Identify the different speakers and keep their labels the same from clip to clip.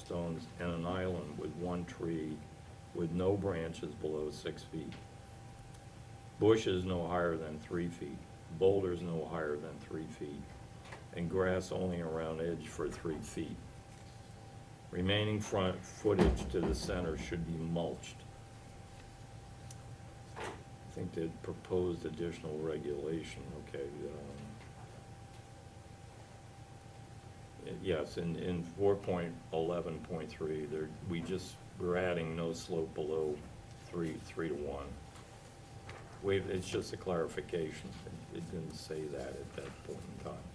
Speaker 1: tombstones and an island with one tree with no branches below six feet. Bushes no higher than three feet, boulders no higher than three feet, and grass only around edge for three feet. Remaining front footage to the center should be mulched. I think they proposed additional regulation, okay, um, yes, in, in four point eleven point three, there, we just, we're adding no slope below three, three to one. We, it's just a clarification, it it didn't say that at that point in time.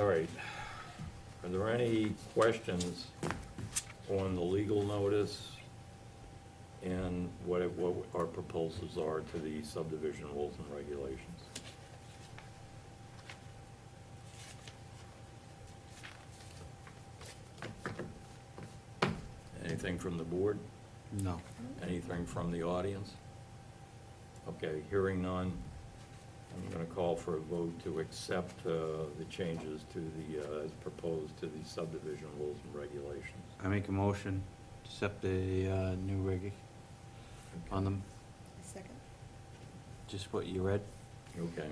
Speaker 1: All right, are there any questions on the legal notice? and what, it- what our proposals are to the subdivision rules and regulations. Anything from the board?
Speaker 2: No.
Speaker 1: Anything from the audience? Okay, hearing none, I'm going to call for a vote to accept uh, the changes to the, uh, as proposed to the subdivision rules and regulations.
Speaker 2: I make a motion to accept the uh, new reg on them,
Speaker 3: Second.
Speaker 2: just what you read.
Speaker 1: Okay.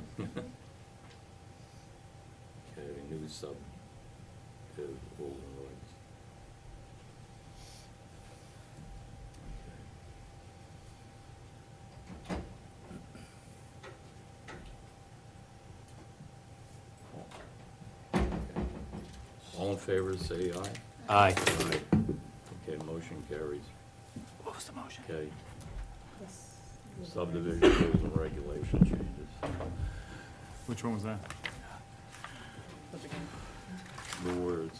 Speaker 1: Okay, new sub, uh, rules and regs. Okay. All in favor, say aye.
Speaker 2: Aye.
Speaker 1: Okay, motion carries.
Speaker 2: What was the motion?
Speaker 1: Okay,
Speaker 3: Yes.
Speaker 1: subdivision rules and regulation changes.
Speaker 4: Which one was that?
Speaker 3: Those again.
Speaker 1: the words,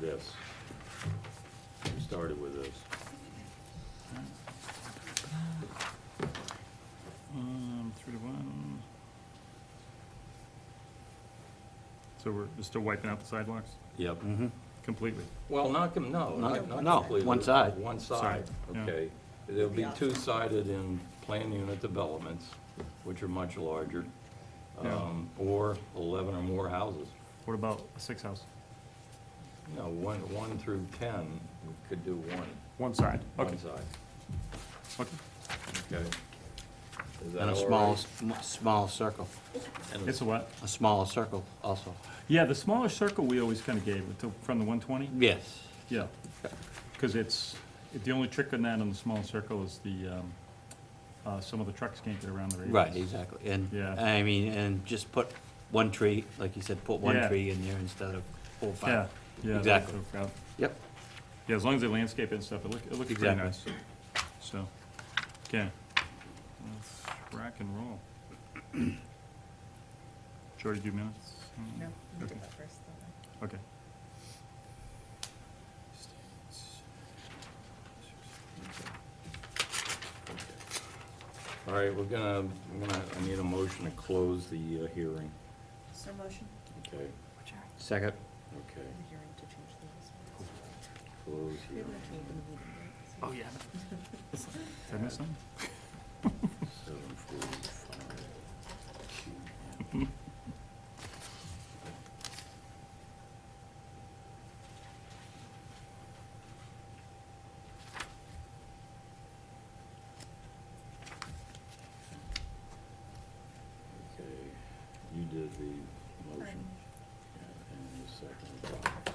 Speaker 1: this. We started with this.
Speaker 4: Um, three to one. So we're just still wiping out the sidewalks
Speaker 1: Yep.
Speaker 2: Mm-hmm.
Speaker 4: completely?
Speaker 1: Well, not, com- no, not
Speaker 2: No,
Speaker 1: not
Speaker 2: no,
Speaker 1: completely.
Speaker 2: one side.
Speaker 1: One side,
Speaker 4: yeah.
Speaker 1: okay. They'll be
Speaker 3: Yeah.
Speaker 1: two-sided in plan unit developments, which are much larger,
Speaker 4: Yeah.
Speaker 1: um, or 11 or more houses.
Speaker 4: What about a six house?
Speaker 1: No, one, one through 10, we could do one,
Speaker 4: One side? Okay.
Speaker 1: one side,
Speaker 4: Okay.
Speaker 1: okay? Is that
Speaker 2: And a
Speaker 1: all
Speaker 2: small,
Speaker 1: right?
Speaker 2: sm- small circle,
Speaker 1: And
Speaker 4: It's a what?
Speaker 2: a smaller circle also.
Speaker 4: Yeah, the smaller circle we always kind of gave, with the- from the 120?
Speaker 2: Yes.
Speaker 4: Yeah. Because it's, it- the only trick on that on the small circle is the, um, uh, some of the trucks can't get around the radius.
Speaker 2: Right, exactly. And,
Speaker 4: Yeah.
Speaker 2: I mean, and just put one tree, like you said, put one
Speaker 4: Yeah.
Speaker 2: tree in there instead of four, or
Speaker 4: Yeah,
Speaker 2: five.
Speaker 4: yeah. that-
Speaker 2: Exactly.
Speaker 4: that-
Speaker 2: Yep.
Speaker 4: Yeah, as long as they landscape it and stuff, it look, it looks pretty
Speaker 2: Exactly.
Speaker 4: nice. So, okay, let's rock and roll. Jordy, do minutes?
Speaker 3: No, you did that first, though.
Speaker 4: Okay.
Speaker 1: All right, we're gonna, I'm gonna, I need a motion to close the uh, hearing,
Speaker 3: So motion?
Speaker 1: okay?
Speaker 2: Second.
Speaker 1: Okay,
Speaker 3: The hearing to change the rules.
Speaker 1: close
Speaker 3: We
Speaker 1: hearing.
Speaker 3: haven't actually opened the meeting yet, so-
Speaker 4: Did I miss something?
Speaker 1: Seven forty-five. Okay, you did the motion. Yeah, And the second. Okay.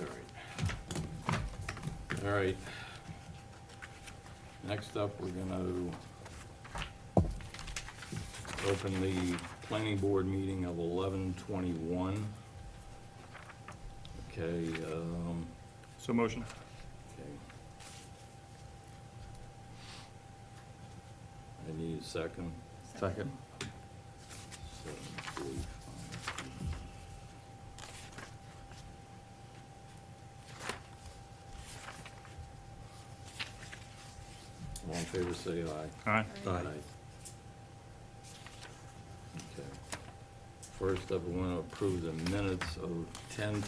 Speaker 1: All right. All right. Next up, we're gonna open the planning board meeting of eleven twenty-one. Okay, um,
Speaker 4: So motion,
Speaker 1: okay. I need a second.
Speaker 2: Second.
Speaker 1: Seven forty-five. All in favor, say aye.
Speaker 4: aye.
Speaker 2: Aye.
Speaker 1: Okay. First up, we want to approve the minutes of ten